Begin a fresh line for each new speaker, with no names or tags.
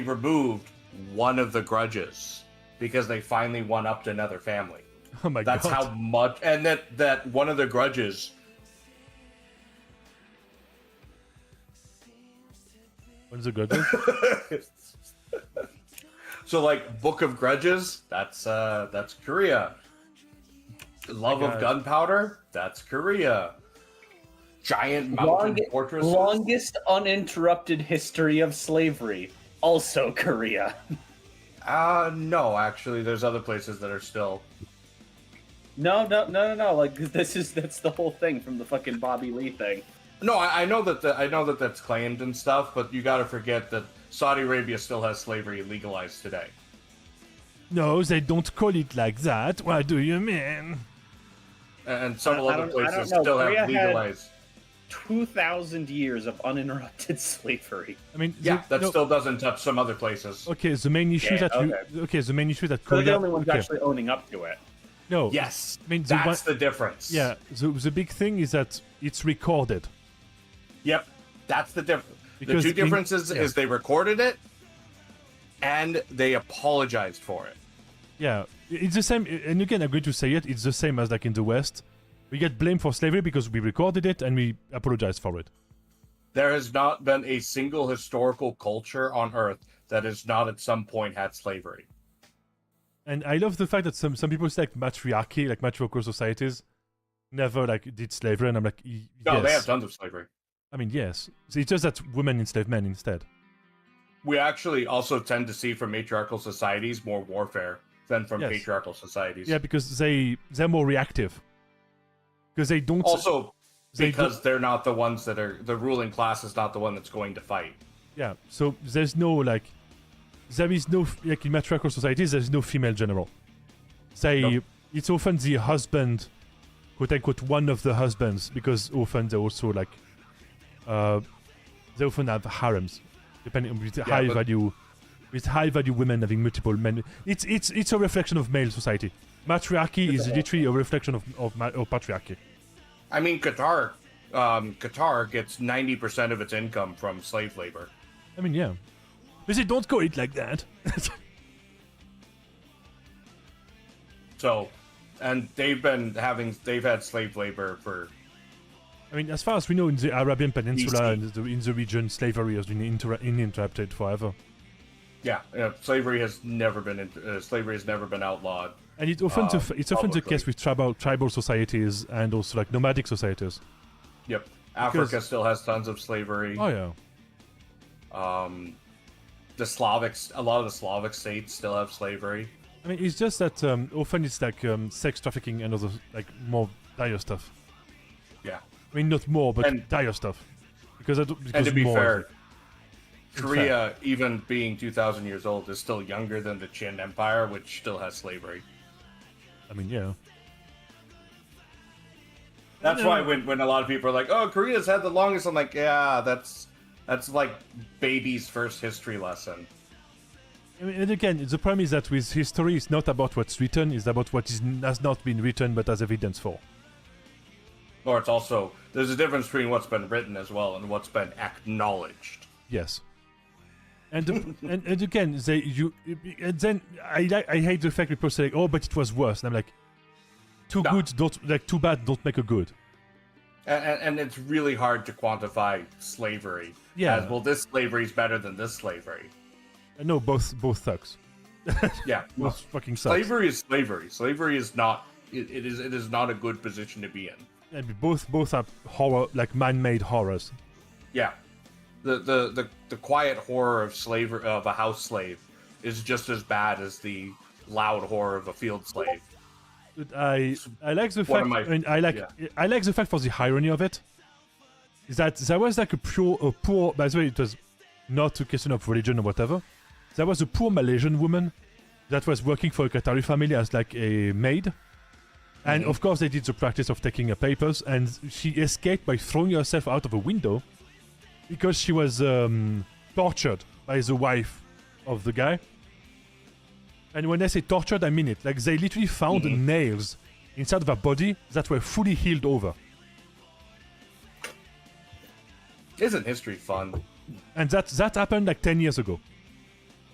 removed one of the grudges because they finally one upped another family.
Oh my
That's
god.
how much, and that that one of the grudges.
What is a grudge?
So like Book of Grudges, that's uh that's Korea. Love
God.
of Gunpowder, that's Korea. Giant mountain
Long,
fortresses.
longest uninterrupted history of slavery, also Korea.
Uh no, actually, there's other places that are still.
No, no, no, no, no. Like this is that's the whole thing from the fucking Bobby Lee thing.
No, I, I know that the, I know that that's claimed and stuff, but you got to forget that Saudi Arabia still has slavery legalized today.
no, they don't call it like that. What do you mean?
and some
I- I
other
don't- I don't
places
know.
still
Korea
have
had-
legalized.
Two thousand years of uninterrupted slavery.
I mean, the-
yeah, that
no,
still doesn't touch some other places.
Oh,
Okay, the main issue
Yeah,
that you, okay, the main issue that
They're
Korea.
the only ones
okay,
actually owning up to it.
no,
Yes,
I mean, the
that's
one-
the difference.
yeah. The, the big thing is that it's recorded.
Yep, that's the difference. The
Because
two
in-
differences
yeah.
is they recorded it and they apologized for it.
Yeah, it's the same, and you can agree to say it. It's the same as like in the West, we get blamed for slavery because we recorded it and we apologize for it.
There has not been a single historical culture on Earth that has not at some point had slavery.
And I love the fact that some some people say like matriarchy, like matriarchal societies, never like did slavery, and I'm like, y-
No,
yes.
they have tons of slavery.
I mean, yes. So It's just that women enslave men instead.
We actually also tend to see from matriarchal societies more warfare than from
Yes.
patriarchal societies.
Yeah, because they they're more reactive. Because they don't.
Also,
they do-
because they're not the ones that are the ruling class is not the one that's going to fight.
Yeah, so there's no like, there is no like in matriarchal societies. There's no female general. Say
No.
it's often the husband, quote unquote, one of the husbands, because often they also like, uh, they often have harems, depending on with high
but-
value, with high value women having multiple men. It's it's it's a reflection of male society. Matriarchy is literally a reflection of of, ma- of patriarchy.
I mean, Qatar, um, Qatar gets ninety percent of its income from slave labor.
I mean, yeah, but they don't call it like that.
So, and they've been having they've had slave labor for
I mean, as far as we know, in the Arabian Peninsula
BC.
and the, in the region, slavery has been inter- interrupted forever,
yeah, yeah slavery has never been in- uh, slavery has never been outlawed.
and it's often the
Um,
f it's often the
probably.
case with tribal tribal societies and also like nomadic societies.
Yep, Africa still has tons of slavery.
Oh yeah,
Um, the Slavics, a lot of the Slavic states still have slavery.
I mean, it's just that um, often it's like um, sex trafficking and other like more dire stuff.
Yeah,
I mean, not more, but
And-
dire stuff. Because I don't, because
and to be
more,
fair, Korea, even being 2,000 years old, is still younger than the Qin Empire, which still has slavery.
I mean, yeah,
That's why when, when a lot of people are like, oh, Korea's had the longest, I'm like, yeah, that's that's like baby's first history lesson.
I mean, and again, the problem is that with history, it's not about what's written; it's about what is has not been written, but has evidence for.
Or it's also, there's a difference between what's been written as well and what's been acknowledged.
Yes. And, the, and and again, they you and then I like I hate the fact people say like, oh, but it was worse, and I'm like, too
No.
good don't like too bad don't make a good.
And, and, and it's really hard to quantify slavery.
Yeah.
as, well, this slavery is better than this slavery.
And Uh, no, both both sucks.
Yeah.
Both fucking sucks.
slavery is slavery. Slavery is not, it, it is it is not a good position to be in.
And both both are horror like man-made horrors.
Yeah, the the the, the quiet horror of slavery of a house slave is just as bad as the loud horror of a field slave.
But I I like the
One
fact
of my-
I, mean, I like
yeah.
I like the fact for the irony of it. Is that there was like a pure a poor by the way it was not a question of religion or whatever. There was a poor Malaysian woman that was working for a Qatari family as like a maid.
Mm-hmm.
And of course they did the practice of taking her papers and she escaped by throwing herself out of a window because she was um, tortured by the wife of the guy. And when I say tortured, I mean it. Like they literally found nails inside of her body that were fully healed over,
Isn't history fun?
and that that happened like ten years ago.